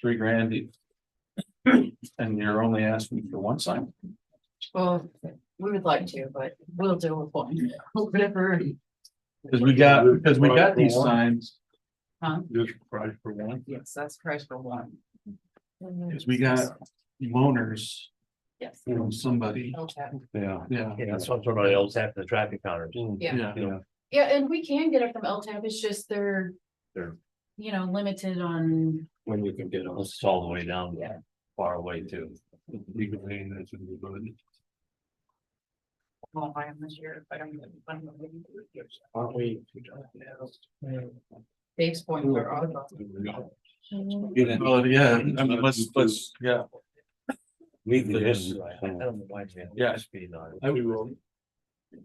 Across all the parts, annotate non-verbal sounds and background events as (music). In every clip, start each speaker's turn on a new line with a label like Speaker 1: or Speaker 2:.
Speaker 1: three grand. each. And you're only asking for one sign.
Speaker 2: Well, we would like to, but we'll do with one, whatever,
Speaker 1: Cause we got, because we got these signs,
Speaker 2: huh?
Speaker 1: this price for one,
Speaker 2: Yes, that's price for one.
Speaker 1: cause we got loners
Speaker 2: Yes.
Speaker 1: from somebody,
Speaker 2: Okay.
Speaker 3: Yeah.
Speaker 1: yeah.
Speaker 4: Yeah, that's what somebody else happened to traffic counters.
Speaker 2: Yeah.
Speaker 1: Yeah,
Speaker 2: Yeah, and we can get it from LTAP, it's just they're.
Speaker 4: They're-
Speaker 2: You know, limited on,
Speaker 3: When you can get on.
Speaker 4: It's all the way down,
Speaker 2: Yeah.
Speaker 4: far away too.
Speaker 3: Legal aid, that's in the good.
Speaker 2: well, I am this year, but I'm. I'm not gonna do it.
Speaker 3: Aren't we?
Speaker 2: Dave's point, we're all about.
Speaker 3: Get in.
Speaker 1: well, yeah, I mean, let's, let's, yeah,
Speaker 3: Leave
Speaker 4: I
Speaker 3: this.
Speaker 4: don't know why they have
Speaker 1: Yeah.
Speaker 4: Speed on it.
Speaker 1: I would roll.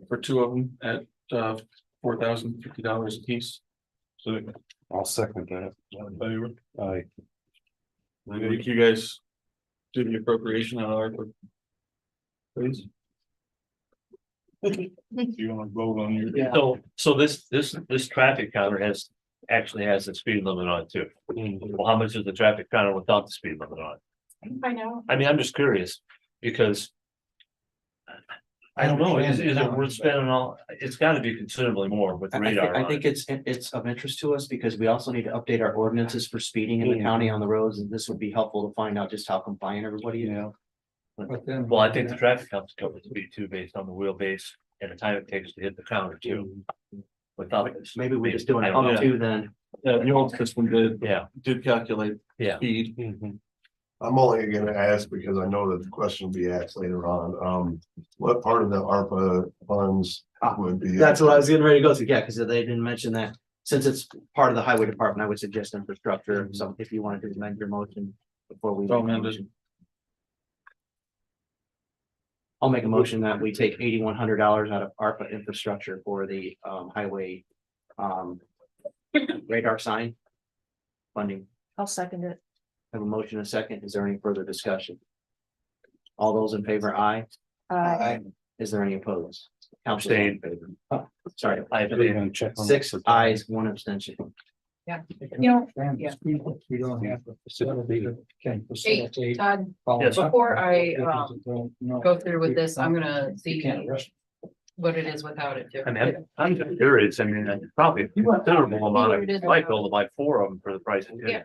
Speaker 1: For two of them at, uh, four thousand fifty dollars a piece. So,
Speaker 3: I'll second that.
Speaker 1: favor.
Speaker 3: I,
Speaker 1: I think you guys do the appropriation on our.
Speaker 5: (laughs)
Speaker 1: Please. You wanna vote on your?
Speaker 2: Yeah.
Speaker 4: So, so this, this, this traffic counter has, actually has a speed limit on it too. Well, how much is the traffic counter without the speed limit on? it?
Speaker 2: I know.
Speaker 4: I mean, I'm just curious, because. I don't know, is, is it worth spending all, it's gotta be considerably more with
Speaker 5: I- I, thi-
Speaker 4: radar
Speaker 5: I
Speaker 4: on it.
Speaker 5: think it's, it's of interest to us because we also need to update our ordinances for speeding in the
Speaker 3: Mm.
Speaker 5: county on the roads, and this would be helpful to find out just how compliant everybody is.
Speaker 3: yeah.
Speaker 1: But then-
Speaker 4: Well, I think the traffic counts cover the speed too based on the wheelbase and the time it takes to hit the counter too. Without this.
Speaker 5: Maybe we just do an
Speaker 4: I don't
Speaker 5: up
Speaker 4: know.
Speaker 5: to then.
Speaker 1: Uh, the old system did,
Speaker 4: Yeah,
Speaker 1: did calculate
Speaker 4: yeah.
Speaker 1: speed.
Speaker 5: Mm-hmm.
Speaker 6: I'm only gonna ask because I know that the question will be asked later on, um, what part of the ARPA funds would be?
Speaker 5: That's what I was getting ready to go to, yeah, because they didn't mention that. Since it's part of the highway department, I would suggest infrastructure, so if you wanted to amend your motion before we.
Speaker 1: Mm-hmm. So amended.
Speaker 5: I'll make a motion that we take eighty-one hundred dollars out of ARPA infrastructure for the um highway um radar sign funding.
Speaker 7: I'll second it.
Speaker 5: Have a motion and a second. Is there any further discussion? All those in favor, aye.
Speaker 7: Uh,
Speaker 5: Is there any opposed? Council's all in favor. Oh, Sorry,
Speaker 4: I
Speaker 3: They're
Speaker 4: believe,
Speaker 3: gonna check on-
Speaker 5: six ayes, one abstention.
Speaker 2: You know, yeah.
Speaker 8: We don't have a facility that can facilitate.
Speaker 2: Todd,
Speaker 8: follow
Speaker 4: Yes.
Speaker 8: up.
Speaker 2: before I, um,
Speaker 8: No.
Speaker 2: go through with this, I'm gonna
Speaker 8: You
Speaker 2: see
Speaker 8: can't rush.
Speaker 2: what it is without it. too.
Speaker 4: I mean, I'm- I'm just curious, I mean, I probably a considerable amount, I might be able to buy four of them for the price. of two.
Speaker 2: Yeah.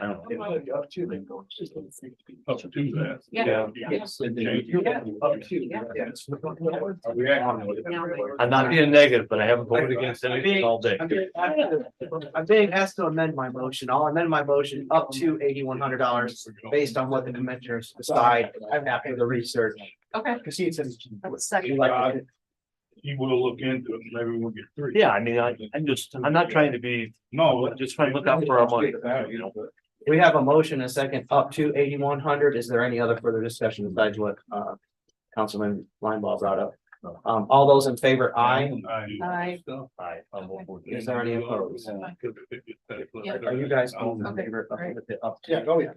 Speaker 4: I don't know.
Speaker 6: Up to then go.
Speaker 1: Up to that.
Speaker 2: Yeah.
Speaker 4: I'm not being negative, but I haven't voted against anything all day.
Speaker 5: I'm being- I'm being asked to amend my motion. I'll amend my motion up to eighty-one hundred dollars based on what the commissioners decide after the research.
Speaker 2: Okay,
Speaker 5: Because he said.
Speaker 7: I'll second.
Speaker 5: you like it.
Speaker 1: You will look into it, maybe we'll get three.
Speaker 4: Yeah, I mean, I, I'm just, I'm not trying to be,
Speaker 1: No,
Speaker 4: I'm just trying to look out for our money, you know.
Speaker 5: We have a motion, a second, up to eighty-one hundred. Is there any other further discussion besides what, uh, Councilman Linebaugh brought up? Um, all those in favor, aye.
Speaker 7: Aye.
Speaker 4: I, I'm all for
Speaker 5: Is
Speaker 4: this.
Speaker 5: there any opposed?
Speaker 2: Yeah.
Speaker 5: Are Oh, you guys all in
Speaker 2: Okay,
Speaker 5: favor
Speaker 2: right.
Speaker 5: of the up? to-
Speaker 8: Yeah, oh, yeah.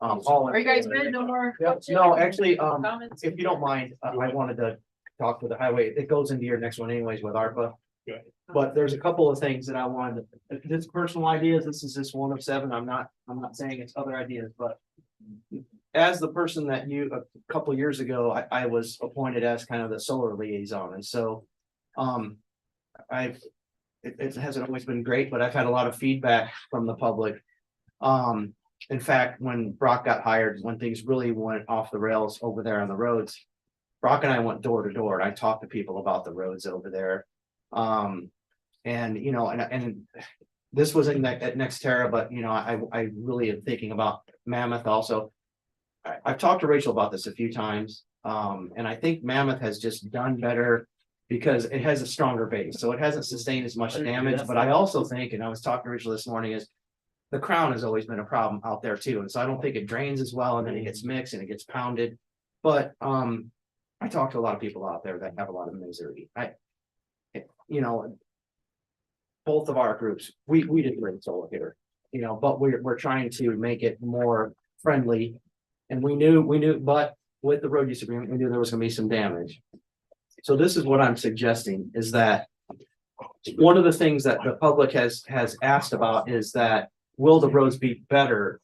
Speaker 5: Um, all. in
Speaker 2: are you guys
Speaker 5: favor?
Speaker 2: good? No more?
Speaker 8: Yeah.
Speaker 5: No, actually, um,
Speaker 2: Comments?
Speaker 5: If you don't mind, I I wanted to talk with the highway, it goes into your next one anyways with ARPA.
Speaker 1: Okay.
Speaker 5: But there's a couple of things that I wanted, to- this personal ideas, this is just one of seven, I'm not, I'm not saying it's other ideas, but. As the person that you, a couple years ago, I, I was appointed as kind of the solar liaison, and so, um. I've, it, it hasn't always been great, but I've had a lot of feedback from the public. Um, in fact, when Brock got hired, when things really went off the rails over there on the roads. Brock and I went door to door and I talked to people about the roads over there. Um, and you know, and, and. This was in that, at Nextera, but you know, I, I really am thinking about Mammoth also. I, I've talked to Rachel about this a few times, um, and I think Mammoth has just done better. Because it has a stronger base, so it hasn't sustained as much damage, but I also think, and I was talking to Rachel this morning is. The crown has always been a problem out there too, and so I don't think it drains as well, and then it gets mixed and it gets pounded. But, um, I talk to a lot of people out there that have a lot of misery, I. eh, You know. Both of our groups, we, we didn't bring solar here, you know, but we're, we're trying to make it more friendly. And we knew, we knew, but with the road use agreement, we knew there was gonna be some damage. So this is what I'm suggesting is that. One of the things that the public has, has asked about is that, will the roads be better